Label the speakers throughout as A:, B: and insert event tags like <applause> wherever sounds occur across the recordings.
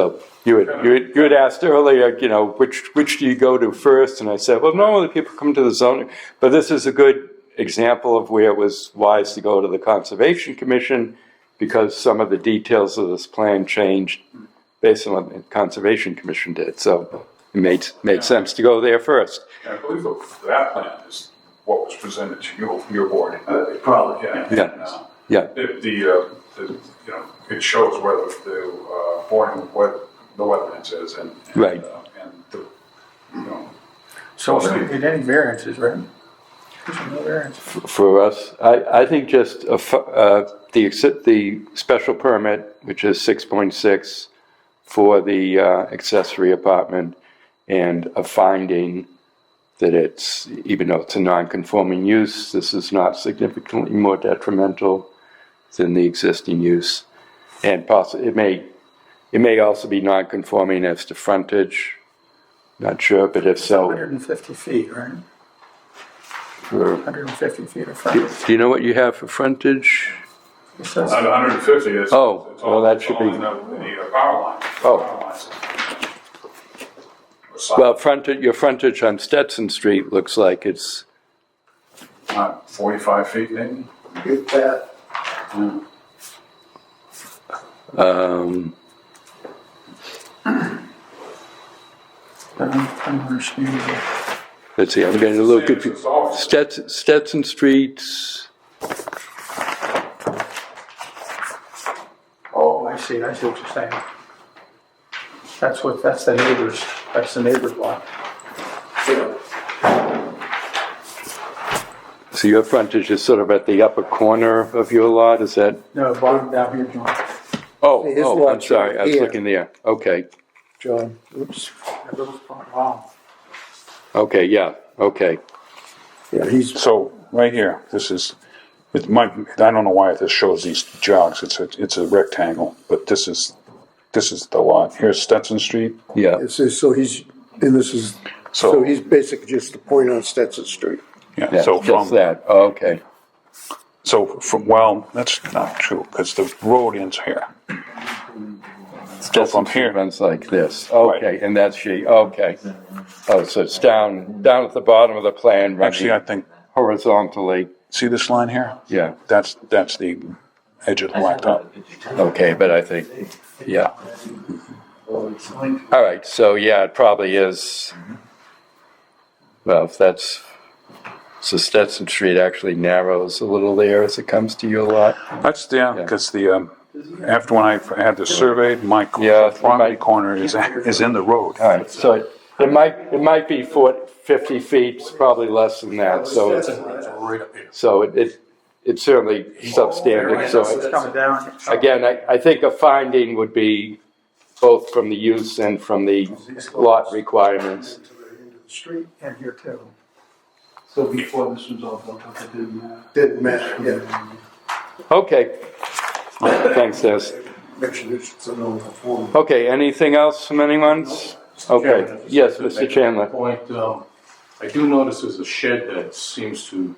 A: So you had, you had, you had asked earlier, you know, which, which do you go to first? And I said, well, normally people come to the zoning, but this is a good example of where it was wise to go to the Conservation Commission because some of the details of this plan changed based on what the Conservation Commission did. So it made, made sense to go there first.
B: I believe that that plan is what was presented to you, your board. uh,
C: Uh, Probably, yeah.
A: Yeah, yeah,
B: The, the, uh, the, you know, it shows where the- the, uh, boarding, where the wetlands is and. and,
A: Right.
B: uh, And the, you know,
C: So we don't need any variances, right? There's no variance.
A: for us. I, I think just a fu- uh, the, ex- the special permit, which is 6.6 for the uh, accessory apartment, and a finding that it's, even though it's a non-conforming use, this is not significantly more detrimental than the existing use. And possibly, it may, it may also be non-conforming as to frontage. Not sure, but if so,
C: 150 feet, right?
A: for-
C: 150 feet of
A: do
C: frontage.
A: do you know what you have for frontage?
C: It says-
D: Uh,
B: not 150 is.
A: Oh,
B: it's all-
A: well, that
B: it's
A: should
B: all
A: be-
B: in The the, uh, power line.
A: Oh.
B: Power lines. Or side,
A: Well, frontage, your frontage on Stetson Street looks like it's,
B: Not 45 feet maybe?
C: Get that.
A: um,
C: I don't I don't understand that.
A: let's see, I'm going to look at,
B: It's all-
A: Stetson, Stetson Street's,
C: Oh, I see, I see what you're saying. That's what, that's the neighbor's, that's the neighbor's lot.
A: so your frontage is sort of at the upper corner of your lot, is that?
C: No, bottom down here, John.
A: Oh,
E: His
A: oh, I'm
E: lot's
A: sorry, I was
E: here.
A: looking there, okay,
E: John, oops,
C: That little spot, wow.
A: okay, yeah, okay.
E: yeah, he's,
B: So, right here, this is, it might, I don't know why this shows these jogs, it's a, it's a rectangle, but this is, this is the lot, here's Stetson Street,
A: Yeah,
E: it says, so he's, and this is, so he's basically just the point on Stetson Street.
B: yeah,
A: yeah,
B: so
A: just
B: from,
A: that, okay,
B: so from, well, that's not true, because the road ends here. So from here,
A: runs like this, okay, and that's she, okay. Oh, so it's down, down at the bottom of the plan,
B: actually, I
A: running
B: think,
A: horizontally,
B: see this line here?
A: yeah,
B: That's, that's the edge of the blacktop.
A: okay, but I think, yeah. All right, so yeah, it probably is. Well, if that's, so Stetson Street actually narrows a little there as it comes to your lot.
B: That's, yeah, because the, um, after when I had this surveyed, my
A: Yeah,
B: cor-
A: it
B: property
A: might-
B: corner is, is in the road.
A: All right, so it, it might, it might be 40 50 feet, it's probably less than that, so it's, so it, it it's certainly substandard, so.
C: It's
A: it-
C: coming down.
A: Again, I, I think a finding would be both from the use and from the lot requirements.
C: Street and here too.
D: So before this was all built up, it didn't matter.
E: Didn't matter, yeah,
A: Okay. Thanks, Des.
E: make sure this is a non-conforming.
A: Okay, anything else from anyone? Okay,
D: Chairman,
A: yes,
D: just
A: Mr.
D: to make a
A: Chandler.
D: Point, um, I do notice there's a shed that seems to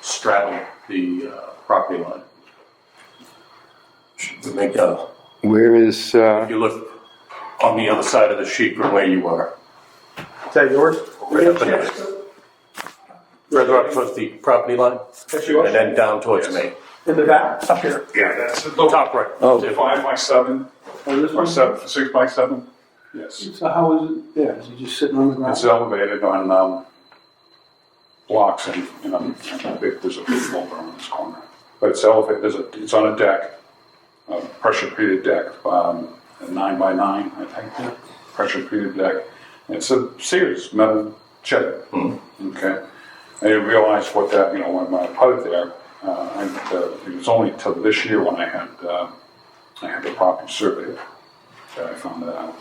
D: straddle the, uh, property line. Should we make a,
A: Where is,
D: if
A: uh,
D: you look on the other side of the sheet from where you are.
C: Is that yours?
D: Right up and- Rather up towards the property line and then down towards me.
C: In the back, up here.
B: Yeah, that's the
D: Top right.
A: Oh.
B: Five by seven, or seven, six by seven? Yes.
C: So how is it there? Is it just sitting on the ground?
B: It's elevated on, um, blocks and, you know, and I think there's a big boulder on this corner. But it's elevated, there's a, it's on a deck, a pressure treated deck, um, a nine by nine, I think, pressure treated deck. It's a serious metal shed, okay? I didn't realize what that, you know, when I put it there, uh, and, uh, it was only till this year when I had, uh, I had the property surveyed that I found that out.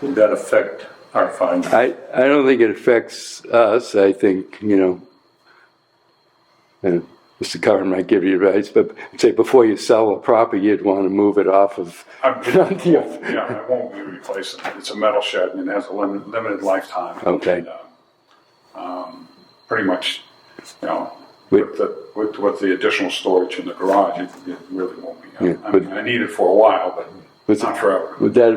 D: Would that affect our finding?
A: I, I don't think it affects us, I think, you know. And Mr. Curran might give you advice, but say before you sell a property, you'd want to move it off of,
B: <laughs> I'm-
A: Yeah.
B: Yeah, it won't be replaced. It's a metal shed and it has a limited, limited lifetime.
A: Okay.
B: And, uh, um, Pretty much, you know,
A: Wait.
B: with the, with, with the additional storage in the garage, it, it really won't be. uh,
A: Yeah,
B: I
A: but-
B: mean, I need it for a while, but
A: Was-
B: Not forever.
A: Would that have